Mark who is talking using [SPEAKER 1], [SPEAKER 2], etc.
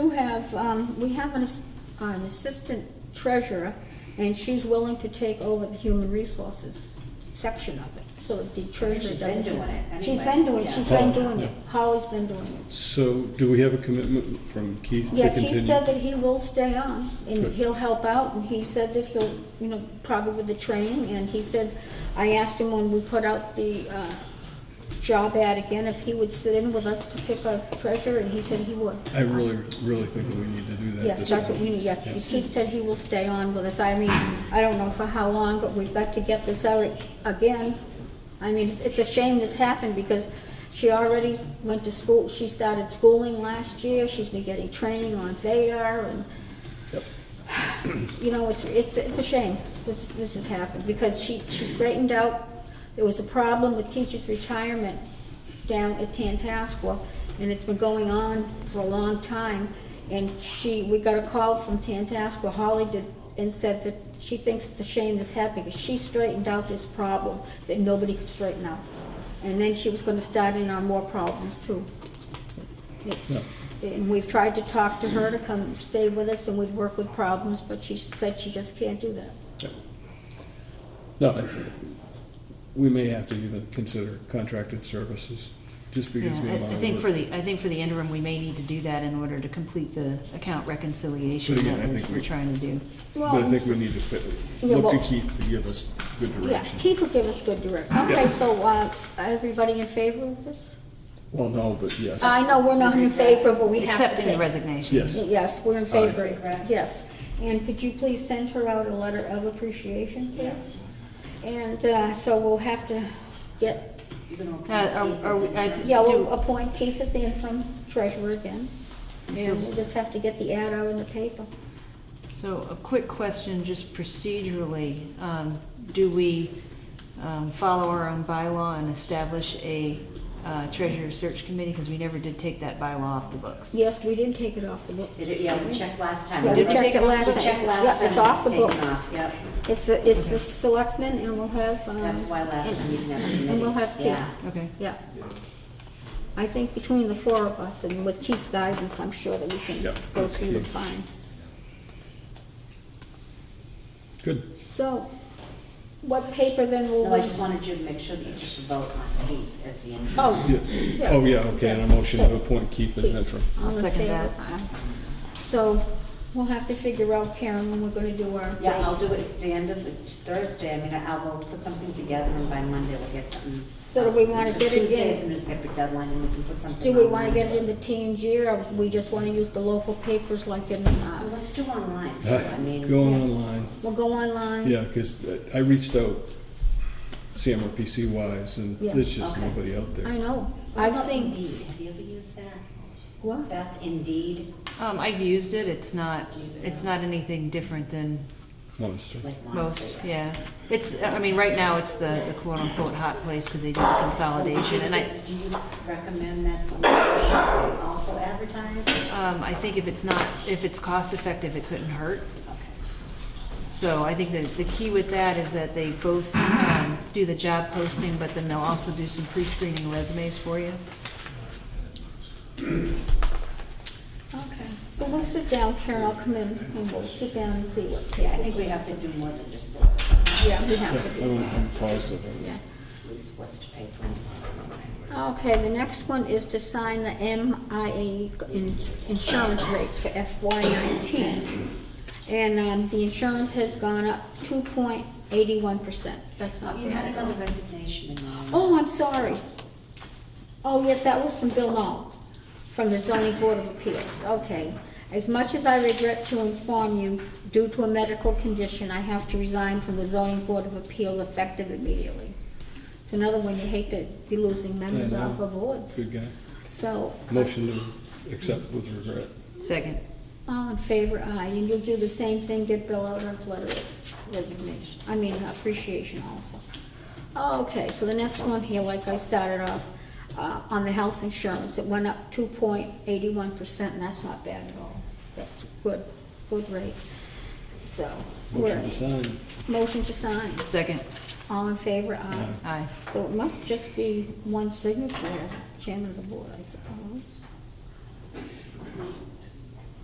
[SPEAKER 1] do have, um, we have an, ass- an assistant treasurer, and she's willing to take over the human resources section of it, so that the treasurer
[SPEAKER 2] She's
[SPEAKER 1] doesn't.
[SPEAKER 2] been
[SPEAKER 1] have-
[SPEAKER 2] doing it
[SPEAKER 1] She's
[SPEAKER 2] anyway,
[SPEAKER 1] been doing,
[SPEAKER 2] yeah.
[SPEAKER 1] she's been
[SPEAKER 3] Oh,
[SPEAKER 1] doing it, Holly's been doing it.
[SPEAKER 3] So do we have a commitment from Keith to
[SPEAKER 1] Yeah, he said
[SPEAKER 3] continue?
[SPEAKER 1] that he will stay on, and
[SPEAKER 3] Good.
[SPEAKER 1] he'll help out, and he said that he'll, you know, probably with the training, and he said, I asked him when we put out the, uh, job ad again, if he would sit in with us to pick a treasurer, and he said he would.
[SPEAKER 3] I really, really think that we need to do that
[SPEAKER 1] Yes,
[SPEAKER 3] this
[SPEAKER 1] that's what we
[SPEAKER 3] time.
[SPEAKER 1] need, yeah.
[SPEAKER 3] Yeah.
[SPEAKER 1] Keith said he will stay on with us. I mean, I don't know for how long, but we've got to get this out again. I mean, it's- it's a shame this happened because she already went to school, she started schooling last year, she's been getting training on Vadar and, you know, it's, it's, it's a shame this, this has happened because she, she straightened out, there was a problem with teachers' retirement down at Tantascwa, and it's been going on for a long time. And she, we got a call from Tantascwa, Holly did, and said that she thinks it's a shame this happened because she straightened out this problem that nobody could straighten out. And then she was gonna start in on more problems too. And we've tried to talk to her to come stay with us and we'd work with problems, but she said she just can't do that.
[SPEAKER 3] No, I- we may have to even consider contracted services, just
[SPEAKER 4] Yeah,
[SPEAKER 3] because we have.
[SPEAKER 4] I I think for the, I think for the interim, we may need to do that in order to complete the account reconciliation
[SPEAKER 3] But again, I
[SPEAKER 4] that we're-
[SPEAKER 3] think we-
[SPEAKER 4] we're trying to do.
[SPEAKER 3] But I think we need to fit-
[SPEAKER 1] Yeah,
[SPEAKER 3] look to
[SPEAKER 1] well-
[SPEAKER 3] Keith to give us good
[SPEAKER 1] Yeah,
[SPEAKER 3] direction.
[SPEAKER 1] Keith will give us good direction. Okay, so, uh, everybody in favor of this?
[SPEAKER 3] Well, no, but yes,
[SPEAKER 1] I know we're not in favor, but we have to
[SPEAKER 4] Accepting the
[SPEAKER 1] take-
[SPEAKER 4] resignation.
[SPEAKER 3] yes.
[SPEAKER 1] Yes, we're in favor,
[SPEAKER 2] Right.
[SPEAKER 1] yes. And could you please send her out a letter of appreciation, please? And, uh, so we'll have to get,
[SPEAKER 4] Uh, are- are we- I th-
[SPEAKER 1] yeah,
[SPEAKER 4] do-
[SPEAKER 1] we'll appoint Keith as the interim treasurer again.
[SPEAKER 4] So-
[SPEAKER 1] And we'll just have to get the ad out in the paper.
[SPEAKER 4] So a quick question, just procedurally, um, do we um, follow our own bylaw and establish a uh, treasurer search committee? Because we never did take that bylaw off the books.
[SPEAKER 1] Yes, we did take it off the books.
[SPEAKER 2] Did it- Yeah, we checked last time.
[SPEAKER 1] Yeah, we
[SPEAKER 4] Did we
[SPEAKER 1] checked
[SPEAKER 4] take
[SPEAKER 1] it
[SPEAKER 4] it
[SPEAKER 1] last
[SPEAKER 2] We
[SPEAKER 1] time.
[SPEAKER 2] checked last
[SPEAKER 1] Yeah,
[SPEAKER 2] time.
[SPEAKER 1] it's off the
[SPEAKER 2] taken
[SPEAKER 1] books.
[SPEAKER 2] off, Yep,
[SPEAKER 1] It's the, it's the selectmen and we'll have, um.
[SPEAKER 2] that's why last
[SPEAKER 1] and-
[SPEAKER 2] time you didn't have a committee.
[SPEAKER 1] And we'll have Keith,
[SPEAKER 2] Yeah.
[SPEAKER 4] Okay,
[SPEAKER 1] yeah. I think between the four of us and with Keith's guidance, I'm sure that we can
[SPEAKER 3] Yep,
[SPEAKER 1] go
[SPEAKER 3] that's
[SPEAKER 1] through it
[SPEAKER 3] Keith.
[SPEAKER 1] fine.
[SPEAKER 3] Good.
[SPEAKER 1] So, what paper then will
[SPEAKER 2] No, I
[SPEAKER 1] we?
[SPEAKER 2] just wanted you to make sure that you took the vote on Keith as the interim.
[SPEAKER 1] Oh,
[SPEAKER 3] Yeah.
[SPEAKER 1] yeah.
[SPEAKER 3] Oh, yeah, okay, and a motion to appoint Keith as interim.
[SPEAKER 1] All in
[SPEAKER 4] I'll second
[SPEAKER 1] favor?
[SPEAKER 4] that.
[SPEAKER 1] Aye. So, we'll have to figure out, Karen, when we're gonna do our.
[SPEAKER 2] Yeah, I'll do it at the end of the Thursday, I mean, I'll we'll put something together and by Monday we'll get something.
[SPEAKER 1] So do we wanna get it in-
[SPEAKER 2] Tuesday's the newspaper deadline and we can put something.
[SPEAKER 1] Do we
[SPEAKER 2] on
[SPEAKER 1] wanna get it in
[SPEAKER 2] Monday.
[SPEAKER 1] the TNG, or we just wanna use the local papers like in,
[SPEAKER 2] Well,
[SPEAKER 1] uh,
[SPEAKER 2] Um, Let's do online too, I mean.
[SPEAKER 3] Going online,
[SPEAKER 1] we'll go online?
[SPEAKER 3] yeah, because I reached out CMRPC wise, and
[SPEAKER 1] Yeah,
[SPEAKER 3] there's just
[SPEAKER 2] okay.
[SPEAKER 3] nobody out there.
[SPEAKER 1] I know,
[SPEAKER 2] What
[SPEAKER 1] I've
[SPEAKER 2] about
[SPEAKER 1] seen,
[SPEAKER 2] Indeed, have you ever used that?
[SPEAKER 1] what?
[SPEAKER 2] Beth, Indeed,
[SPEAKER 4] Um, I've used it, it's not, it's not anything different than
[SPEAKER 3] Monster.
[SPEAKER 2] like
[SPEAKER 4] Most,
[SPEAKER 2] Monster.
[SPEAKER 4] yeah. It's, uh, I mean, right now, it's the the quote-unquote hot place because they do the consolidation, and I,
[SPEAKER 2] Do you recommend that someone should also advertise?
[SPEAKER 4] um, I think if it's not, if it's cost-effective, it couldn't hurt.
[SPEAKER 2] Okay.
[SPEAKER 4] So I think that the key with that is that they both um, do the job posting, but then they'll also do some pre-screening resumes for you.
[SPEAKER 1] Okay, so we'll sit down, Karen, I'll come in, and we'll sit down and see what, yeah,
[SPEAKER 2] I think we have to do more than just the, at
[SPEAKER 1] yeah, we have to
[SPEAKER 3] Yeah,
[SPEAKER 1] do
[SPEAKER 3] I'm
[SPEAKER 1] that,
[SPEAKER 3] I'm positive of
[SPEAKER 1] yeah.
[SPEAKER 3] that.
[SPEAKER 2] least Worcester paper. and-
[SPEAKER 1] Okay, the next one is to sign the MIA in- insurance rates for FY nineteen. And, um, the insurance has gone up two point eighty-one percent, that's not
[SPEAKER 2] Oh, You had
[SPEAKER 1] bad.
[SPEAKER 2] another resignation in there.
[SPEAKER 1] Oh, I'm sorry. Oh, yes, that was from Bill Knoll, from the zoning board of appeals, okay. As much as I regret to inform you, due to a medical condition, I have to resign from the zoning board of appeal effective immediately. It's another one you hate to be losing members
[SPEAKER 3] I know.
[SPEAKER 1] off of boards.
[SPEAKER 3] Good guy.
[SPEAKER 1] So,
[SPEAKER 3] Motion to accept with regret.
[SPEAKER 4] Second.
[SPEAKER 1] all in favor, aye, and you'll do the same thing, get Bill out a letter of resignation, I mean appreciation also. Okay, so the next one here, like I started off, uh, on the health insurance, it went up two point eighty-one percent, and that's not bad at all. That's good, good rate, so. we're-
[SPEAKER 3] Motion to sign.
[SPEAKER 1] Motion to sign,
[SPEAKER 4] Second.
[SPEAKER 1] all in favor, aye.
[SPEAKER 4] Aye.
[SPEAKER 1] So it must just be one signature, chairman of the board, I suppose.